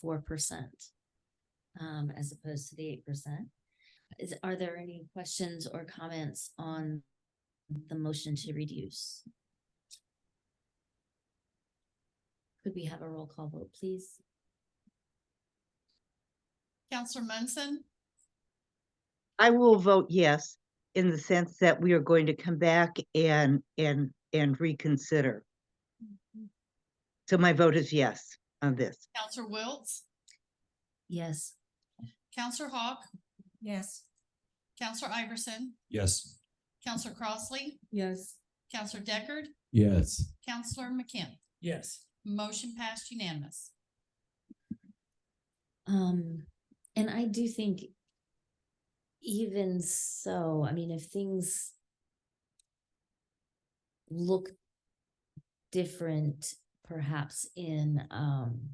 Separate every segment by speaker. Speaker 1: four percent. Um, as opposed to the eight percent. Is, are there any questions or comments on the motion to reduce? Could we have a roll call vote, please?
Speaker 2: Counselor Munson,
Speaker 3: I will vote yes, in the sense that we are going to come back and, and, and reconsider. So my vote is yes on this.
Speaker 2: Counselor Wiltz,
Speaker 1: Yes,
Speaker 2: Counselor Hawk,
Speaker 4: Yes.
Speaker 2: Counselor Iverson,
Speaker 5: Yes.
Speaker 2: Counselor Crossley,
Speaker 4: Yes.
Speaker 2: Counselor Deckard,
Speaker 5: Yes.
Speaker 2: Counselor McKim.
Speaker 6: Yes.
Speaker 2: Motion passed unanimous.
Speaker 1: um, and I do think even so, I mean, if things look different perhaps in, um,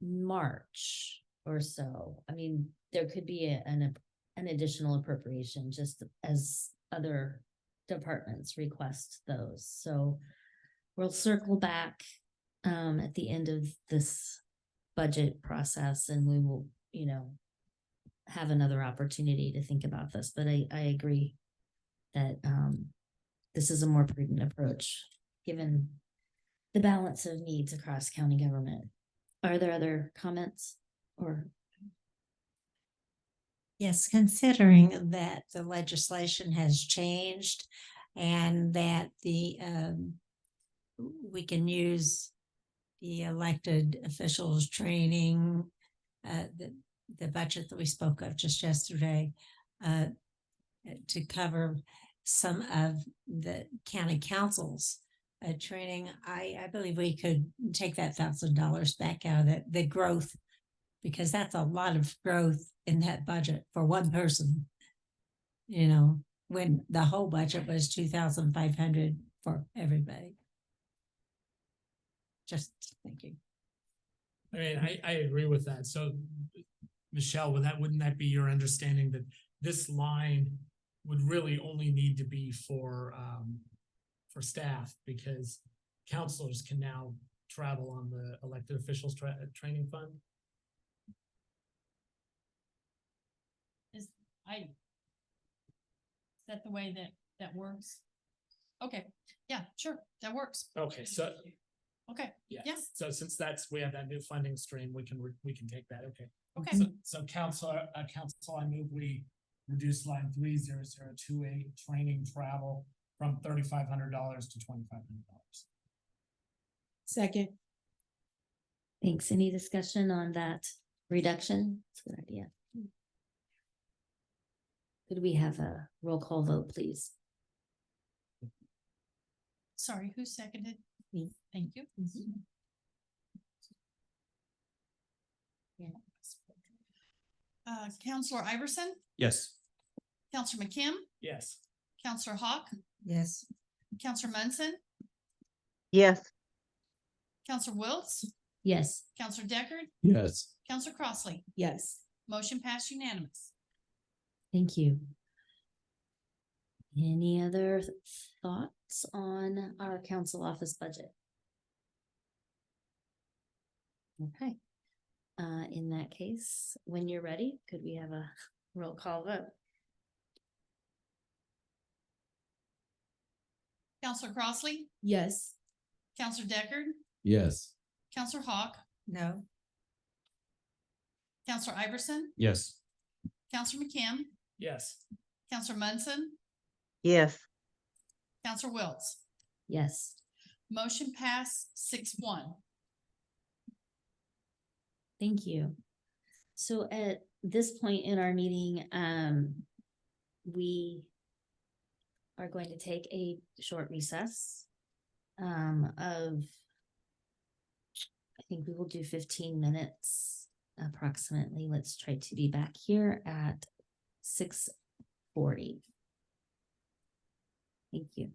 Speaker 1: March or so, I mean, there could be a- an, ap- an additional appropriation just as other departments request those, so we'll circle back, um, at the end of this budget process and we will, you know, have another opportunity to think about this, but I, I agree that, um, this is a more prudent approach, given the balance of needs across county government. Are there other comments or,
Speaker 4: Yes, considering that the legislation has changed and that the um. We can use the elected officials training, uh, the the budget that we spoke of just yesterday. Uh, to cover some of the county councils. Uh, training, I I believe we could take that thousand dollars back out of that, the growth because that's a lot of growth in that budget for one person. You know, when the whole budget was two thousand five hundred for everybody. Just thinking.
Speaker 6: I mean, I, I agree with that. So Michelle, would that, wouldn't that be your understanding that this line would really only need to be for, um, for staff because counselors can now travel on the elected officials tra- training fund?
Speaker 2: I. Is that the way that, that works? Okay, yeah, sure, that works.
Speaker 6: Okay, so,
Speaker 2: Okay,
Speaker 6: yeah.
Speaker 2: yes,
Speaker 6: So since that's, we have that new funding stream, we can, re- we can take that, okay.
Speaker 2: okay,
Speaker 6: So, so council, uh, council, I move we reduce line three zero zero two eight, training travel from thirty-five hundred dollars to twenty-five hundred dollars.
Speaker 4: Second.
Speaker 1: thanks, any discussion on that reduction? It's a good idea. Could we have a roll call vote, please?
Speaker 2: sorry, who seconded?
Speaker 1: Me.
Speaker 2: Thank you. Uh, Counselor Iverson,
Speaker 5: Yes.
Speaker 2: Counselor McKim,
Speaker 6: Yes.
Speaker 2: Counselor Hawk,
Speaker 4: Yes.
Speaker 2: Counselor Munson,
Speaker 3: Yes,
Speaker 2: Counselor Wiltz,
Speaker 1: Yes,
Speaker 2: Counselor Deckard,
Speaker 5: Yes.
Speaker 2: Counselor Crossley.
Speaker 4: Yes.
Speaker 2: Motion passed unanimous.
Speaker 1: Thank you. Any other th- thoughts on our council office budget? Okay, uh, in that case, when you're ready, could we have a roll call vote?
Speaker 2: Counselor Crossley,
Speaker 4: Yes.
Speaker 2: Counselor Deckard,
Speaker 5: Yes.
Speaker 2: Counselor Hawk,
Speaker 4: No.
Speaker 2: Counselor Iverson,
Speaker 5: Yes.
Speaker 2: Counselor McKim,
Speaker 6: Yes.
Speaker 2: Counselor Munson,
Speaker 3: yes,
Speaker 2: Counselor Wiltz.
Speaker 1: Yes,
Speaker 2: Motion passed six one.
Speaker 1: thank you. So at this point in our meeting, um, we are going to take a short recess um, of I think we will do fifteen minutes approximately. Let's try to be back here at six forty. Thank you.